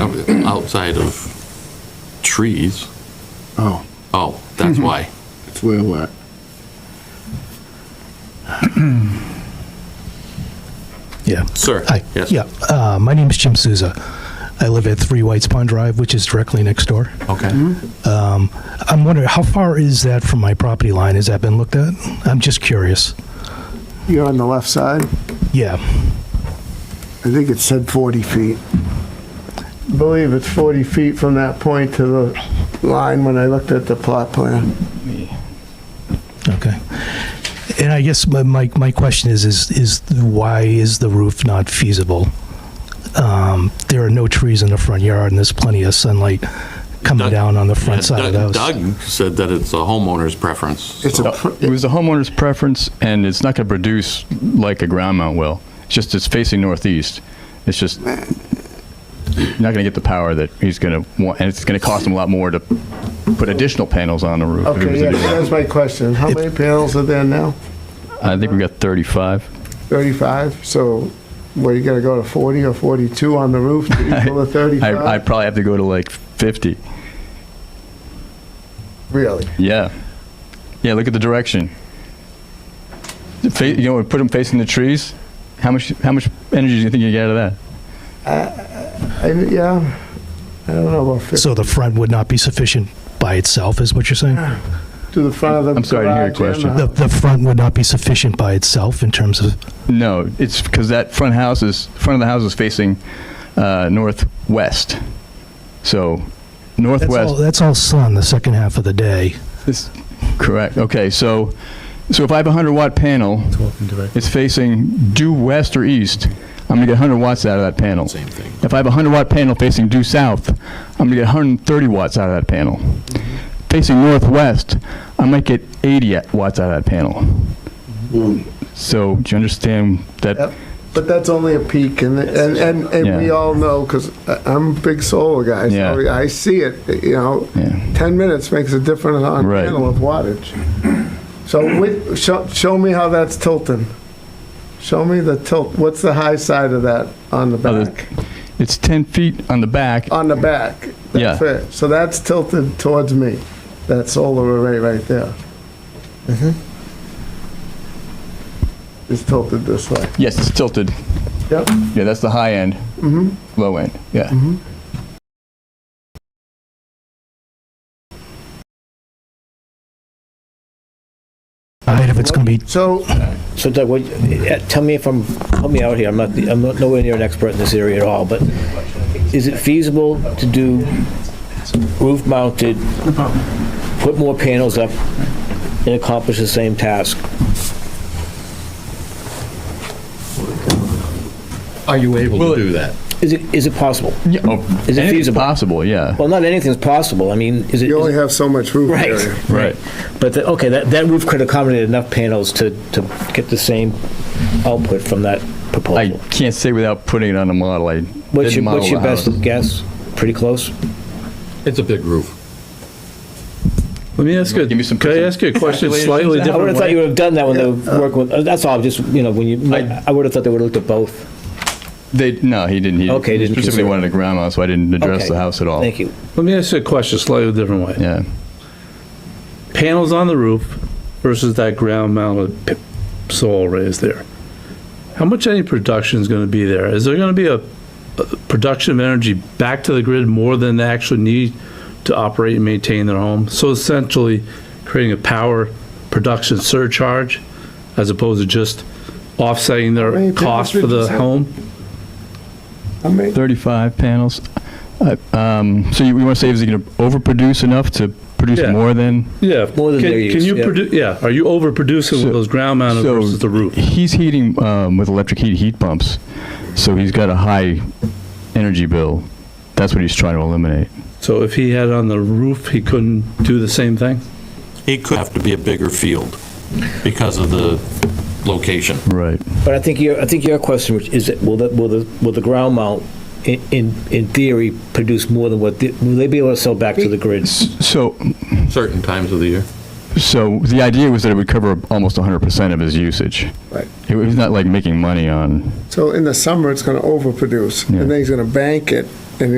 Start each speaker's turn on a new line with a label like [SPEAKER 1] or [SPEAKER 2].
[SPEAKER 1] um, outside of trees.
[SPEAKER 2] Oh,
[SPEAKER 1] Oh,
[SPEAKER 3] Mm-hmm.
[SPEAKER 1] that's why.
[SPEAKER 2] it's where we're at.
[SPEAKER 3] Yeah.
[SPEAKER 1] Sir?
[SPEAKER 3] Hi.
[SPEAKER 1] Yes.
[SPEAKER 3] Yeah. Uh, my name is Jim Souza. I live at 3 Whites Pond Drive, which is directly next door.
[SPEAKER 1] Okay.
[SPEAKER 3] I'm wondering, how far is that from my property line? Has that been looked at? I'm just curious.
[SPEAKER 2] You're on the left side?
[SPEAKER 3] Yeah.
[SPEAKER 2] I think it said 40 feet. I believe it's 40 feet from that point to the line when I looked at the plot plan.
[SPEAKER 3] Okay. And I guess my, my, my question is, is, is why is the roof not feasible? Um, there are no trees in the front yard and there's plenty of sunlight coming
[SPEAKER 1] Doug-
[SPEAKER 3] down on the front
[SPEAKER 1] Yeah,
[SPEAKER 3] side of the
[SPEAKER 1] Doug-
[SPEAKER 3] house.
[SPEAKER 1] Doug said that it's a homeowner's preference.
[SPEAKER 2] It's a,
[SPEAKER 4] It
[SPEAKER 2] pr-
[SPEAKER 4] was the homeowner's preference, and it's not going to produce like a ground mount will. It's just it's facing northeast. It's just you're not going to get the power that he's going to want, and it's going to cost him a lot more to put additional panels on the roof. if he was
[SPEAKER 2] okay,
[SPEAKER 4] to
[SPEAKER 2] yeah,
[SPEAKER 4] do that.
[SPEAKER 2] that's my question. How many panels are there now?
[SPEAKER 4] I think we got 35.
[SPEAKER 2] 35? So, what, you gonna go to 40 or 42 on the roof to equal the
[SPEAKER 4] I, I
[SPEAKER 2] 35?
[SPEAKER 4] probably have to go to like 50.
[SPEAKER 2] Really?
[SPEAKER 4] Yeah, yeah. Look at the direction. The fa- you know, we put him facing the trees. How much how much energy do you think you get out of that?
[SPEAKER 2] I- Yeah, I don't know about 50.
[SPEAKER 3] So the front would not be sufficient by itself, is what you're saying?
[SPEAKER 2] To the front of the garage.
[SPEAKER 4] I'm sorry, I didn't hear your
[SPEAKER 2] and
[SPEAKER 4] question.
[SPEAKER 2] the-
[SPEAKER 3] The, the front would not be sufficient by itself in terms of,
[SPEAKER 4] No, it's because that front house is front of the house is facing uh, northwest. So
[SPEAKER 3] that's all,
[SPEAKER 4] northwest.
[SPEAKER 3] that's all sun the second half of the day.
[SPEAKER 4] This, correct. Okay. So so if I have a hundred watt panel, it's facing due west or east. I'm gonna get 100 watts out of that panel.
[SPEAKER 1] Same thing.
[SPEAKER 4] If I have a 100 watt panel facing due south, I'm gonna get 130 watts out of that panel. Facing northwest, I might get 80 watts out of that panel. So do you understand that?
[SPEAKER 2] Yep. But that's only a peak, and, and, and, and we
[SPEAKER 4] Yeah.
[SPEAKER 2] all know, because I'm a big solar guy, so
[SPEAKER 4] Yeah.
[SPEAKER 2] I see it, you know,
[SPEAKER 4] Yeah.
[SPEAKER 2] 10 minutes makes a difference on
[SPEAKER 4] Right.
[SPEAKER 2] panel of wattage. So with, show, show me how that's tilting. Show me the tilt, what's the high side of that on the
[SPEAKER 4] Oh, the-
[SPEAKER 2] back?
[SPEAKER 4] It's 10 feet on the back.
[SPEAKER 5] Oh.
[SPEAKER 2] On the back. That's
[SPEAKER 4] Yeah.
[SPEAKER 2] it. So that's tilted towards me, that solar array right there. It's tilted this way.
[SPEAKER 4] Yes, it's tilted.
[SPEAKER 2] Yep.
[SPEAKER 4] Yeah, that's the high end. Mm-hmm. Low end. Yeah.
[SPEAKER 5] Mm-hmm.
[SPEAKER 3] The height of it's going to be,
[SPEAKER 2] So
[SPEAKER 5] So Doug, what, eh, tell me if I'm, help me out here, I'm not, the- I'm not nowhere near an expert in this area at all, but is it feasible to do roof mounted, put more panels up and accomplish the same task?
[SPEAKER 1] Are you able to do that?
[SPEAKER 5] Is it, is it possible?
[SPEAKER 4] yeah. Oh,
[SPEAKER 5] Is it
[SPEAKER 4] anything's
[SPEAKER 5] feasible?
[SPEAKER 4] Possible, yeah.
[SPEAKER 5] Well, not anything's possible, I mean, is it,
[SPEAKER 2] you
[SPEAKER 5] is
[SPEAKER 2] only
[SPEAKER 5] it-
[SPEAKER 2] have so much roof
[SPEAKER 5] Right.
[SPEAKER 2] area.
[SPEAKER 4] Right.
[SPEAKER 5] but, the- okay, that, that roof could accommodate enough panels to, to get the same output from that
[SPEAKER 4] I
[SPEAKER 5] proposal.
[SPEAKER 4] can't say without putting it on a model. I
[SPEAKER 5] What's
[SPEAKER 4] didn't
[SPEAKER 5] your,
[SPEAKER 4] model
[SPEAKER 5] what's your
[SPEAKER 4] the
[SPEAKER 5] best
[SPEAKER 4] house.
[SPEAKER 5] guess? Pretty close?
[SPEAKER 1] It's a big roof.
[SPEAKER 6] Let me ask you,
[SPEAKER 4] Give me some
[SPEAKER 6] can I ask you a question
[SPEAKER 4] calculations?
[SPEAKER 6] slightly
[SPEAKER 5] I would
[SPEAKER 6] different
[SPEAKER 5] have thought you
[SPEAKER 6] way?
[SPEAKER 5] would have done that when they were working with, uh, that's all, just, you know, when you,
[SPEAKER 4] I-
[SPEAKER 5] I would have thought they would have looked at both.
[SPEAKER 4] They, no, he didn't. He
[SPEAKER 5] Okay, he didn't
[SPEAKER 4] specifically
[SPEAKER 5] consider it.
[SPEAKER 4] wanted a ground mount, so I didn't address
[SPEAKER 5] Okay.
[SPEAKER 4] the house at all.
[SPEAKER 5] Thank you.
[SPEAKER 6] Let me ask you a question slightly different way.
[SPEAKER 4] Yeah.
[SPEAKER 6] Panels on the roof versus that ground mounted p- solar arrays there. How much any production is going to be there? Is there going to be a, a production of energy back to the grid more than they actually need to operate and maintain their home? So essentially creating a power production surcharge as opposed to just offsetting
[SPEAKER 2] many
[SPEAKER 6] their
[SPEAKER 2] panels
[SPEAKER 6] cost
[SPEAKER 2] did
[SPEAKER 6] for
[SPEAKER 2] you
[SPEAKER 6] the
[SPEAKER 2] say?
[SPEAKER 6] home?
[SPEAKER 2] I mean,
[SPEAKER 4] 35 panels. Uh, um, so you, you want to say is it going to overproduce enough to produce
[SPEAKER 6] Yeah.
[SPEAKER 4] more than?
[SPEAKER 6] Yeah.
[SPEAKER 5] More than
[SPEAKER 6] Can-
[SPEAKER 5] their
[SPEAKER 6] Can
[SPEAKER 5] use,
[SPEAKER 6] you
[SPEAKER 5] yeah.
[SPEAKER 6] produ yeah, are you overproducing
[SPEAKER 4] So-
[SPEAKER 6] with those ground mounted
[SPEAKER 4] so
[SPEAKER 6] versus the roof?
[SPEAKER 4] He's heating um, with electric heat heat pumps, so he's got a high energy bill. That's what he's trying to eliminate.
[SPEAKER 6] So if he had on the roof, he couldn't do the same thing?
[SPEAKER 1] It could have to be a bigger field because of the location.
[SPEAKER 4] Right.
[SPEAKER 5] But I think your, I think your question Rich, is, that will the, will the, will the ground mount, i- in, in theory, produce more than what, the- will they be able to sell back to the grid?
[SPEAKER 4] So,
[SPEAKER 1] Certain times of the year.
[SPEAKER 4] so the idea was that it would cover almost 100% of his usage.
[SPEAKER 2] Right.
[SPEAKER 4] It was not like making money on
[SPEAKER 2] so in the summer, it's gonna overproduce,
[SPEAKER 4] Yeah.
[SPEAKER 2] and then he's gonna bank it, and